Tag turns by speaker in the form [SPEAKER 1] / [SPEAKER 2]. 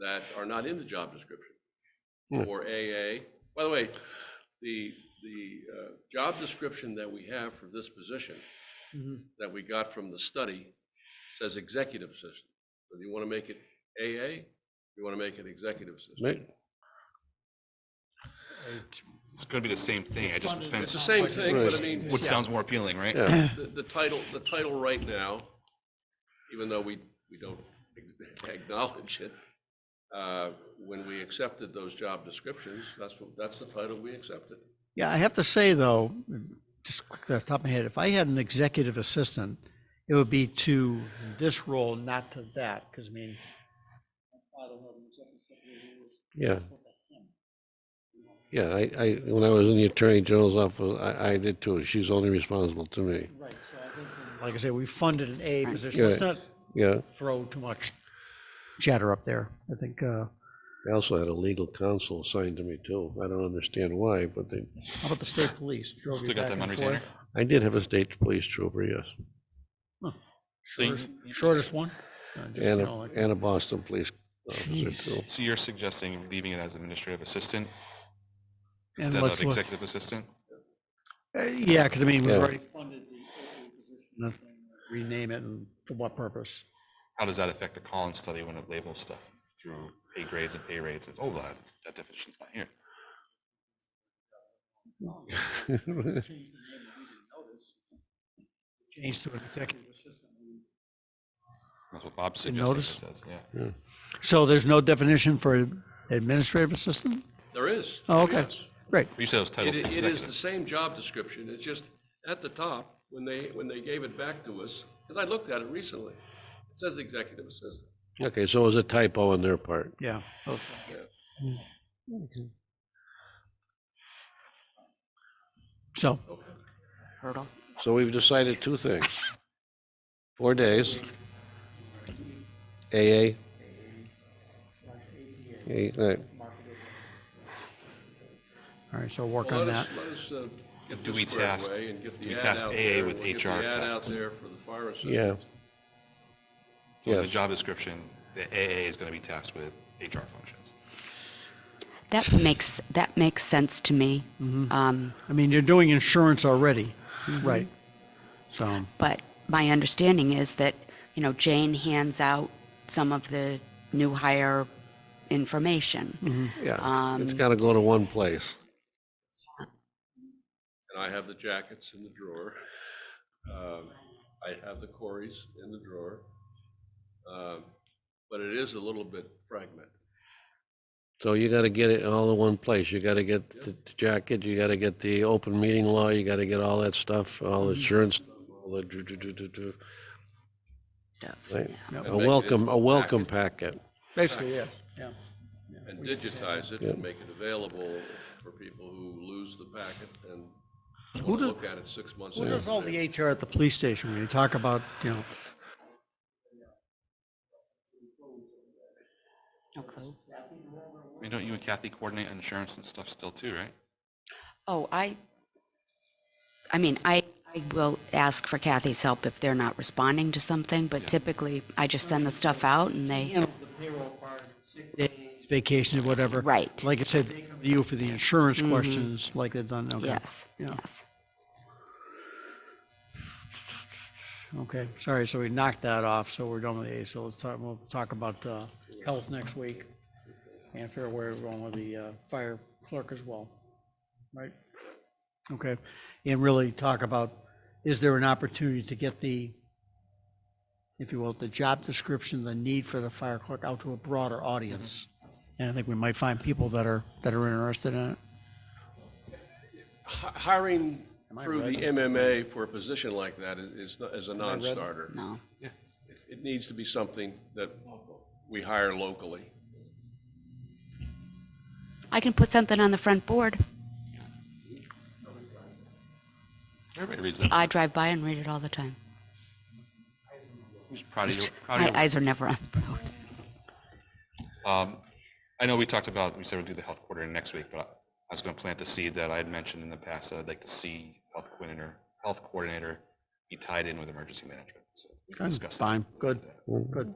[SPEAKER 1] that are not in the job description.
[SPEAKER 2] Yeah.
[SPEAKER 1] Or AA, by the way, the, the uh, job description that we have for this position,
[SPEAKER 3] Mhm.
[SPEAKER 1] that we got from the study, says executive assistant. So do you want to make it AA? You want to make it executive assistant?
[SPEAKER 2] Make-
[SPEAKER 4] It's gonna be the same thing, I just,
[SPEAKER 3] funded
[SPEAKER 4] depends
[SPEAKER 1] It's the same thing, but I
[SPEAKER 2] Right.
[SPEAKER 1] mean,
[SPEAKER 4] what sounds more appealing, right?
[SPEAKER 2] Yeah,
[SPEAKER 1] the, the title, the title right now, even though we, we don't acknowledge it, uh, when we accepted those job descriptions, that's, what- that's the title we accepted.
[SPEAKER 3] Yeah, I have to say though, just quickly off the top of my head, if I had an executive assistant, it would be to this role, not to that, because I mean. my father was an executive assistant, he was
[SPEAKER 2] yeah,
[SPEAKER 3] with him.
[SPEAKER 2] yeah. I, I, when I was in the Attorney General's office, I, I did too. She's only responsible to me.
[SPEAKER 3] Right, so I think, um, like I say, we funded an A position. Let's
[SPEAKER 2] Right.
[SPEAKER 3] not
[SPEAKER 2] Yeah.
[SPEAKER 3] throw too much chatter up there. I think, uh,
[SPEAKER 2] I also had a legal counsel assigned to me too. I don't understand why, but they,
[SPEAKER 3] how about the state police? Drove you
[SPEAKER 4] Still got
[SPEAKER 3] back
[SPEAKER 4] them on
[SPEAKER 3] and
[SPEAKER 4] retainer?
[SPEAKER 3] forth.
[SPEAKER 2] I did have a state police trooper, yes.
[SPEAKER 4] So you-
[SPEAKER 3] Shortest shortest one? Uh, just,
[SPEAKER 2] And
[SPEAKER 3] you
[SPEAKER 2] a,
[SPEAKER 3] know, like-
[SPEAKER 2] and a Boston police officer too.
[SPEAKER 4] So you're suggesting leaving it as administrative assistant
[SPEAKER 3] And
[SPEAKER 4] instead
[SPEAKER 3] let's
[SPEAKER 4] of
[SPEAKER 3] look-
[SPEAKER 4] executive assistant?
[SPEAKER 3] Uh, Yeah, because I mean, we've
[SPEAKER 2] Yeah.
[SPEAKER 3] already funded the open position. and Rename it and for what purpose?
[SPEAKER 4] How does that affect the Collins study when it labels stuff through pay grades and pay rates? It's, oh, that, that definition's not here.
[SPEAKER 3] Change to an executive assistant.
[SPEAKER 4] That's what Bob's
[SPEAKER 3] Didn't
[SPEAKER 4] suggesting it says, yeah.
[SPEAKER 3] So there's no definition for administrative assistant?
[SPEAKER 1] There is.
[SPEAKER 3] Oh, okay.
[SPEAKER 1] yes.
[SPEAKER 3] Great.
[SPEAKER 4] You said it was
[SPEAKER 1] It,
[SPEAKER 4] titled
[SPEAKER 1] i- it is the
[SPEAKER 4] executive.
[SPEAKER 1] same job description, it's just at the top, when they, when they gave it back to us, because I looked at it recently, it says executive assistant.
[SPEAKER 2] Okay, so it was a typo on their part.
[SPEAKER 3] Yeah. okay. So,
[SPEAKER 5] hurdle.
[SPEAKER 2] So we've decided two things. Four days. AA. Eight, all right.
[SPEAKER 3] all right, so work
[SPEAKER 1] Well,
[SPEAKER 3] on
[SPEAKER 1] Let us,
[SPEAKER 3] that.
[SPEAKER 1] let us uh, get
[SPEAKER 4] Do we
[SPEAKER 1] this squared
[SPEAKER 4] task-
[SPEAKER 1] away and get
[SPEAKER 4] do we
[SPEAKER 1] the ad
[SPEAKER 4] task
[SPEAKER 1] out
[SPEAKER 4] AA
[SPEAKER 1] there.
[SPEAKER 4] with
[SPEAKER 1] We'll get
[SPEAKER 4] HR
[SPEAKER 1] the ad out
[SPEAKER 4] tasks?
[SPEAKER 1] there for the fire assistant.
[SPEAKER 2] yeah,
[SPEAKER 4] So in The
[SPEAKER 2] yes.
[SPEAKER 4] job description, the AA is gonna be tasked with HR functions.
[SPEAKER 5] That makes, that makes sense to me.
[SPEAKER 3] Mm-hmm.
[SPEAKER 5] Um,
[SPEAKER 3] I mean, you're doing insurance already, right? So,
[SPEAKER 5] But my understanding is that, you know, Jane hands out some of the new hire
[SPEAKER 3] Mm-hmm.
[SPEAKER 5] information.
[SPEAKER 2] yeah. It's got to go to one place.
[SPEAKER 1] And I have the jackets in the drawer. Um, I have the Corys in the drawer. Um, But it is a little bit fragmented.
[SPEAKER 2] So you got to get it all in one place. You got to get the the jacket, you got to get the open meeting law, you got to get all that stuff, all the insurance, all the do, do, do, do, do.
[SPEAKER 5] Stuff.
[SPEAKER 2] Right.
[SPEAKER 3] Yep.
[SPEAKER 2] A welcome, a welcome packet.
[SPEAKER 3] basically, yeah, yeah.
[SPEAKER 1] And digitize it and make it available for people who lose the packet and
[SPEAKER 3] Who
[SPEAKER 1] want to
[SPEAKER 3] do-
[SPEAKER 1] look at it six months.
[SPEAKER 3] Who does
[SPEAKER 1] after
[SPEAKER 3] all
[SPEAKER 1] they-
[SPEAKER 3] the HR at the police station when you talk about, you know,
[SPEAKER 4] I mean, don't you and Kathy coordinate insurance and stuff still too, right?
[SPEAKER 5] Oh, I, I mean, I, I will ask for Kathy's help if they're not responding to something, but typically I just send the stuff out and they,
[SPEAKER 3] handle the payroll part, sick days, vacation, whatever.
[SPEAKER 5] Right. Mm-hmm.
[SPEAKER 3] Like I said, they come to you for the insurance questions like they've done, okay.
[SPEAKER 5] yes,
[SPEAKER 3] Yeah.
[SPEAKER 5] yes.
[SPEAKER 3] Okay, sorry, so we knocked that off, so we're done with the A, so let's talk, we'll talk about, uh, health next week. And fair where we're going with the, uh, fire clerk as well, right? Okay, and really talk about, is there an opportunity to get the, if you will, the job description, the need for the fire clerk out to a broader audience? And I think we might find people that are, that are interested in it.
[SPEAKER 1] Hi- Hiring
[SPEAKER 3] Am I
[SPEAKER 1] through
[SPEAKER 3] red?
[SPEAKER 1] the MMA for a position like that is- is, not- is a non-starter.
[SPEAKER 5] No.
[SPEAKER 1] It- It needs to be something that we hire locally.
[SPEAKER 5] I can put something on the front board.
[SPEAKER 4] Everybody reads that.
[SPEAKER 5] I drive by and read it all the time.
[SPEAKER 4] Who's proud of you? proud of
[SPEAKER 5] My
[SPEAKER 4] you?
[SPEAKER 5] eyes are never on the road.
[SPEAKER 4] Um, I know we talked about, we said we'd do the health coordinator next week, but I was gonna plant the seed that I had mentioned in the past that I'd like to see health coordinator, health coordinator be tied in with emergency management. So we can discuss that.
[SPEAKER 3] Fine, good, good.